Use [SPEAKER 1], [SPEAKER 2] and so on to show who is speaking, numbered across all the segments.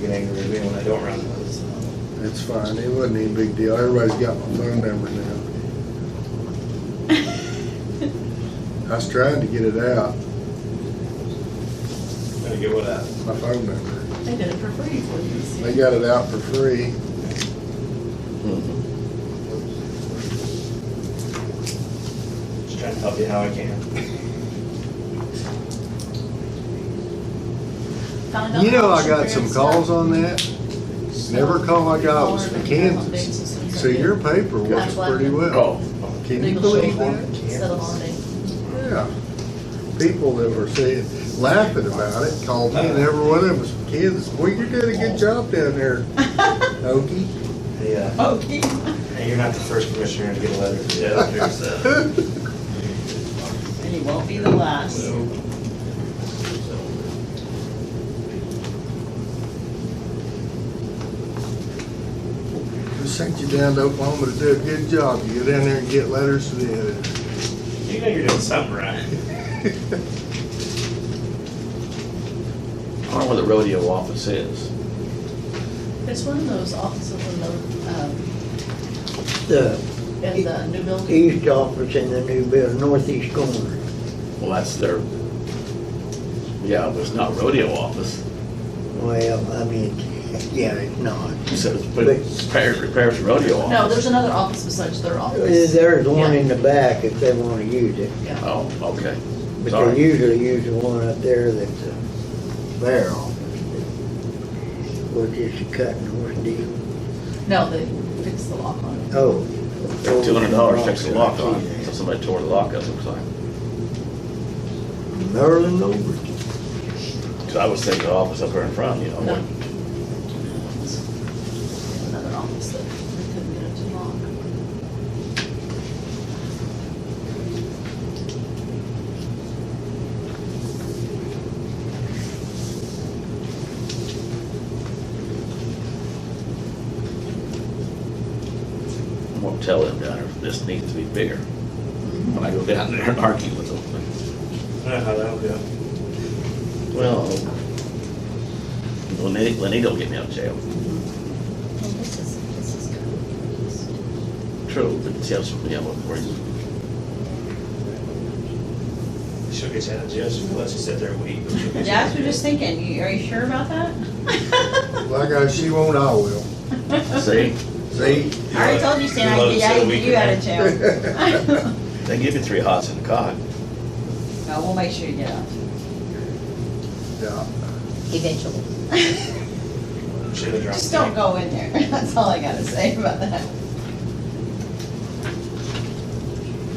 [SPEAKER 1] get angry at me when I don't run those.
[SPEAKER 2] It's fine, it wasn't any big deal, everybody's got my phone number now. I was trying to get it out,
[SPEAKER 1] Gotta get what out.
[SPEAKER 2] my phone number.
[SPEAKER 3] They did it for free for you.
[SPEAKER 2] They got it out for free.
[SPEAKER 1] Just trying to help you how I can.
[SPEAKER 3] Found out
[SPEAKER 2] You know,
[SPEAKER 3] how
[SPEAKER 2] I
[SPEAKER 3] much
[SPEAKER 2] got
[SPEAKER 3] your
[SPEAKER 2] some
[SPEAKER 3] parents
[SPEAKER 2] calls
[SPEAKER 3] are.
[SPEAKER 2] on that. Every call I got was from Kansas. So your paper works pretty well. Can you believe that?
[SPEAKER 3] Instead of holiday.
[SPEAKER 2] Yeah. People that were saying, laughing about it, called me, and every one of them was from Kansas. Well, you did a good job down there, Okie.
[SPEAKER 1] Hey, uh,
[SPEAKER 3] Okay.
[SPEAKER 1] hey, you're not the first commissioner to get a letter from the auditor, so.
[SPEAKER 3] And you won't be the last.
[SPEAKER 2] We sent you down to Oklahoma to do a good job. You get down there and get letters to the editor.
[SPEAKER 1] You know you're doing something right.
[SPEAKER 4] I don't know where the rodeo office is.
[SPEAKER 3] It's one of those offices in the, um,
[SPEAKER 5] The
[SPEAKER 3] in the new building.
[SPEAKER 5] east office in the new building, northeast corner.
[SPEAKER 4] Well, that's their, yeah, but it's not rodeo office.
[SPEAKER 5] Well, I mean, yeah, it's not.
[SPEAKER 4] You said it's, but it's parish, parish rodeo office.
[SPEAKER 3] No, there's another office besides their office.
[SPEAKER 5] There's one in the back if they wanna use it,
[SPEAKER 3] Yeah.
[SPEAKER 4] Oh, okay.
[SPEAKER 5] but
[SPEAKER 4] Sorry.
[SPEAKER 5] they usually use the one up there that's uh, their office. Which is a cut and horse deal.
[SPEAKER 3] No, they fixed the lock on it.
[SPEAKER 5] Oh.
[SPEAKER 4] Two hundred dollars fix the lock on,
[SPEAKER 5] Yeah.
[SPEAKER 4] so somebody tore the lock up, looks like.
[SPEAKER 5] Merlin Overton.
[SPEAKER 4] Cause I was thinking the office up there in front, you know.
[SPEAKER 3] No.
[SPEAKER 4] what-
[SPEAKER 3] Another office that they couldn't get it to lock.
[SPEAKER 4] I'm gonna tell them down there, this needs to be bigger. When I go down there and argue with them.
[SPEAKER 1] I know how that'll go.
[SPEAKER 4] Well, Lenny, Lenny don't get me out of jail.
[SPEAKER 3] Well, Oh, this is, this is good.
[SPEAKER 4] True, but tell some, yeah, what, where you
[SPEAKER 1] She'll get you out of jail, she'll let you sit there a week. but she'll get you out
[SPEAKER 6] Jax
[SPEAKER 1] of
[SPEAKER 6] was just
[SPEAKER 1] jail.
[SPEAKER 6] thinking, you- are you sure about that?
[SPEAKER 2] Like I, she won't, I will.
[SPEAKER 4] See,
[SPEAKER 2] See?
[SPEAKER 6] I already told you, Stan, I could
[SPEAKER 1] You'll let it
[SPEAKER 6] get
[SPEAKER 1] sit a
[SPEAKER 6] out-
[SPEAKER 1] week
[SPEAKER 6] you
[SPEAKER 1] in
[SPEAKER 6] out
[SPEAKER 1] there.
[SPEAKER 6] of jail.
[SPEAKER 4] they give you three hots and a cot.
[SPEAKER 6] No, we'll make sure you get out,
[SPEAKER 2] Yeah.
[SPEAKER 6] eventually.
[SPEAKER 1] Should've dropped
[SPEAKER 6] Just
[SPEAKER 1] the
[SPEAKER 6] don't go in there, that's all I gotta say about that.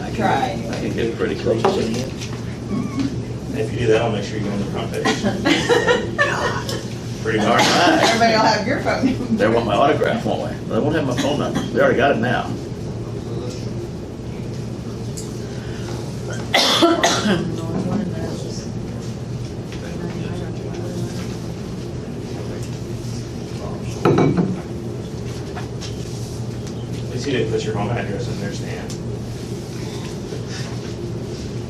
[SPEAKER 6] I try.
[SPEAKER 4] I can get pretty close to it.
[SPEAKER 1] If you do that, I'll make sure you go on the front page. Pretty
[SPEAKER 4] All
[SPEAKER 1] hard.
[SPEAKER 4] right.
[SPEAKER 6] Everybody will have your phone number.
[SPEAKER 4] They want my autograph, won't they? They won't have my phone number. They already got it now.
[SPEAKER 1] At least you didn't put your home address in there, Stan.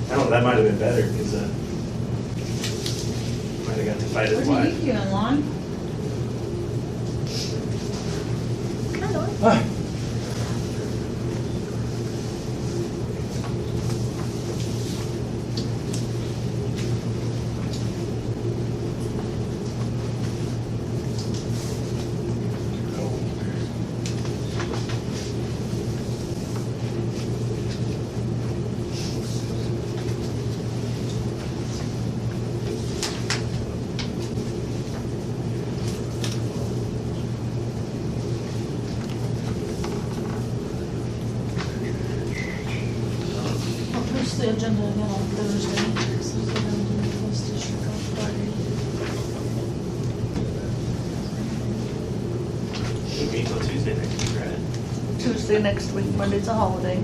[SPEAKER 1] I don't know, that might have been better, because, uh, might have got to fight his
[SPEAKER 6] What are you
[SPEAKER 1] wife.
[SPEAKER 6] doing, Lon?
[SPEAKER 3] I'll post the agenda again on Thursday, so it's gonna be posted on Friday.
[SPEAKER 1] We'll meet till Tuesday next week, right?
[SPEAKER 3] Tuesday next week, Monday's a holiday.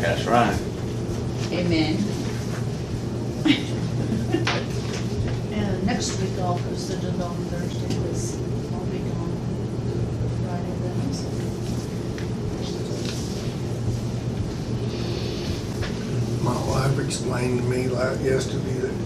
[SPEAKER 4] That's right.
[SPEAKER 6] Amen.
[SPEAKER 3] And next week I'll post the agenda on Thursday, because I'll be gone Friday then, so.
[SPEAKER 2] My wife explained to me like yesterday that